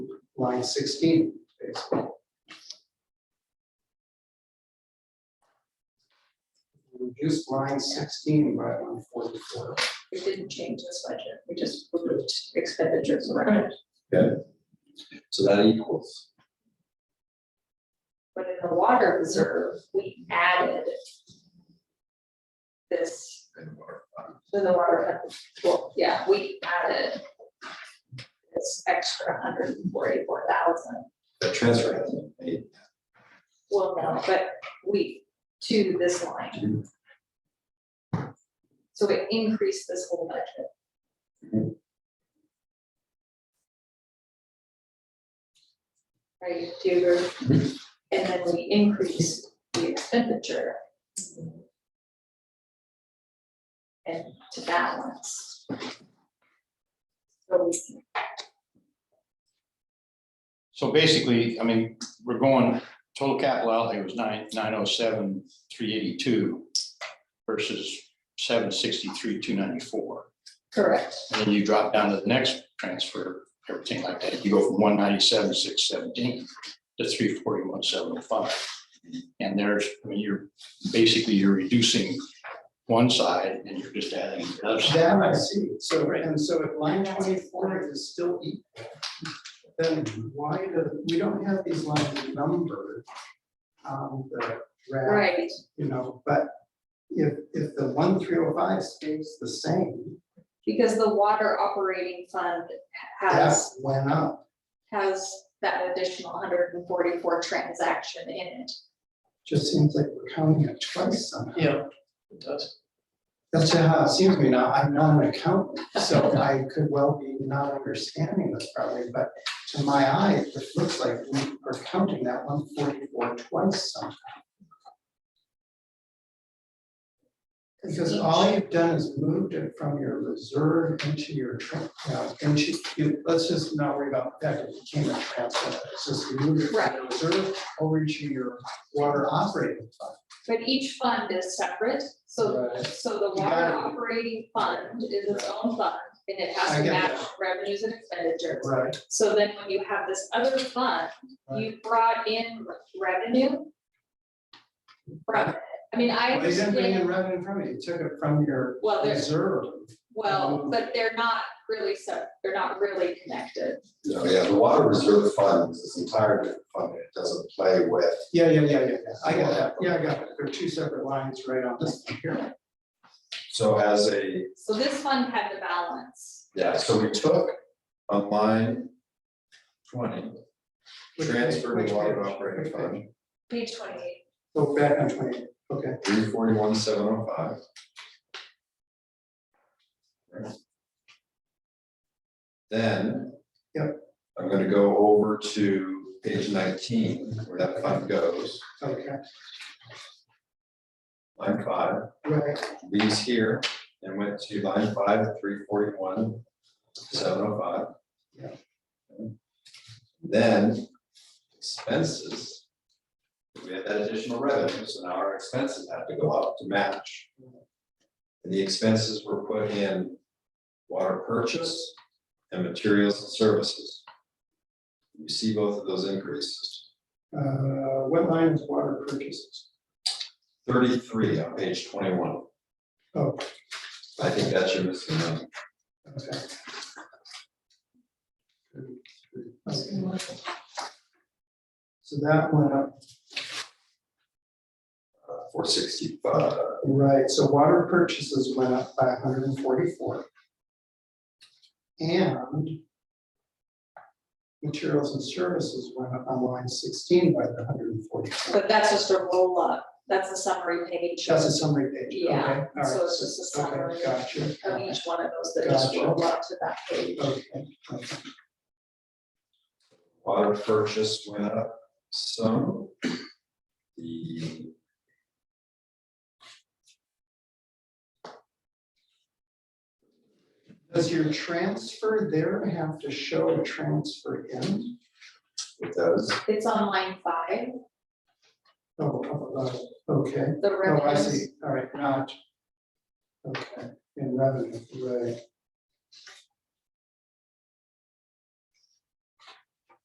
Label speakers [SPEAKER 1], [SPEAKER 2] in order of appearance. [SPEAKER 1] line sixteen, basically. Reduced line sixteen by one forty-four.
[SPEAKER 2] We didn't change this budget, we just removed expenditures around,
[SPEAKER 3] So that equals,
[SPEAKER 2] but in the water reserve, we added this, to the water, fund. well, yeah, we added this extra hundred and forty-four thousand,
[SPEAKER 3] that transfer hasn't been made.
[SPEAKER 2] well, no, but we, to this line,
[SPEAKER 3] Do
[SPEAKER 2] so it increased this whole budget. Right, do you agree?
[SPEAKER 3] Mhm.
[SPEAKER 2] And then we increase the expenditure. And to balance. So we-
[SPEAKER 4] So basically, I mean, we're going, total capital outlay was nine, nine oh seven, three eighty-two versus seven sixty-three, two ninety-four.
[SPEAKER 2] Correct,
[SPEAKER 4] And then you drop down to the next transfer, everything like that. You go from one ninety-seven, six seventeen to three forty-one, seven oh five. And there's, I mean, you're, basically you're reducing one side and you're just adding the other side.
[SPEAKER 1] That I see, so, and so if line twenty-four is still equal, then why the, we don't have these lines numbered on the graph.
[SPEAKER 2] right,
[SPEAKER 1] you know, but if, if the one three oh five stays the same,
[SPEAKER 2] because the water operating fund
[SPEAKER 1] that
[SPEAKER 2] has,
[SPEAKER 1] went up.
[SPEAKER 2] has that additional hundred and forty-four transaction in it.
[SPEAKER 1] Just seems like we're counting it twice somehow.
[SPEAKER 5] Yeah, it does.
[SPEAKER 1] That's just how it seems to me now. I'm not an accountant, so I could well be not understanding this probably, but to my eye, it looks like we are counting that one forty-four twice somehow. Because all you've done is moved it from your reserve into your, tra- uh, into, you- let's just not worry about that, it became a transfer. It's just you moved it from your reserve over to your water operating fund.
[SPEAKER 2] But each fund is separate, so,
[SPEAKER 1] Right.
[SPEAKER 2] so the
[SPEAKER 1] You
[SPEAKER 2] water
[SPEAKER 1] got it.
[SPEAKER 2] operating fund is its own fund, and it has
[SPEAKER 1] I
[SPEAKER 2] to
[SPEAKER 1] get
[SPEAKER 2] match revenues and expenditures.
[SPEAKER 1] Right.
[SPEAKER 2] So then when you have this other fund, you brought in revenue from it. I mean, I
[SPEAKER 1] Well, They didn't bring in
[SPEAKER 2] understand,
[SPEAKER 1] revenue from it, you took it from your
[SPEAKER 2] well, there's,
[SPEAKER 1] reserve.
[SPEAKER 2] well, but they're not really so, they're not really connected.
[SPEAKER 3] No, yeah, the water reserve fund is this entire different fund, it doesn't play with.
[SPEAKER 1] Yeah, yeah, yeah, yeah, I got that, yeah, I got it, there are two separate lines right on this one here.
[SPEAKER 3] So as a,
[SPEAKER 2] So this fund had the balance,
[SPEAKER 3] yeah, so we took on line twenty,
[SPEAKER 1] Which page,
[SPEAKER 3] transfer
[SPEAKER 1] which
[SPEAKER 3] to water
[SPEAKER 1] page,
[SPEAKER 3] operating
[SPEAKER 1] which
[SPEAKER 3] fund,
[SPEAKER 1] page?
[SPEAKER 2] page twenty-eight,
[SPEAKER 1] Go back on twenty, okay,
[SPEAKER 3] three forty-one, seven oh five. Then.
[SPEAKER 1] Yep.
[SPEAKER 3] I'm gonna go over to page nineteen, where that fund goes,
[SPEAKER 1] okay,
[SPEAKER 3] line five.
[SPEAKER 1] right,
[SPEAKER 3] these here and went to line five, three forty-one, seven oh five.
[SPEAKER 1] Yeah.
[SPEAKER 3] Then expenses. We had that additional revenue, so now our expenses have to go up to match. And the expenses were put in water purchase and materials and services. You see both of those increases,
[SPEAKER 1] uh, what line is water purchases?
[SPEAKER 3] thirty-three on page twenty-one.
[SPEAKER 1] Oh.
[SPEAKER 3] I think that's your missing number.
[SPEAKER 1] Okay. Okay. So that went up,
[SPEAKER 3] four sixty-five,
[SPEAKER 1] Uh, right, so water purchases went up by hundred and forty-four. And materials and services went up on line sixteen by the hundred and forty-four.
[SPEAKER 2] but that's just a roll up, that's a summary page
[SPEAKER 1] Just a summary page, okay, all
[SPEAKER 2] Yeah,
[SPEAKER 1] right.
[SPEAKER 2] so it's just a
[SPEAKER 1] okay,
[SPEAKER 2] summary.
[SPEAKER 1] Gotcha.
[SPEAKER 2] of each one of those that just
[SPEAKER 1] Gotcha.
[SPEAKER 2] roll up to that page.
[SPEAKER 1] Okay, okay.
[SPEAKER 3] water purchase went up some. The.
[SPEAKER 1] Does your transfer there have to show a transfer in?
[SPEAKER 3] It does,
[SPEAKER 2] It's on line five,
[SPEAKER 1] Oh, oh, oh, okay.
[SPEAKER 2] the
[SPEAKER 1] Oh, I
[SPEAKER 2] revenues,
[SPEAKER 1] see, all right, not. Okay, in revenue, right.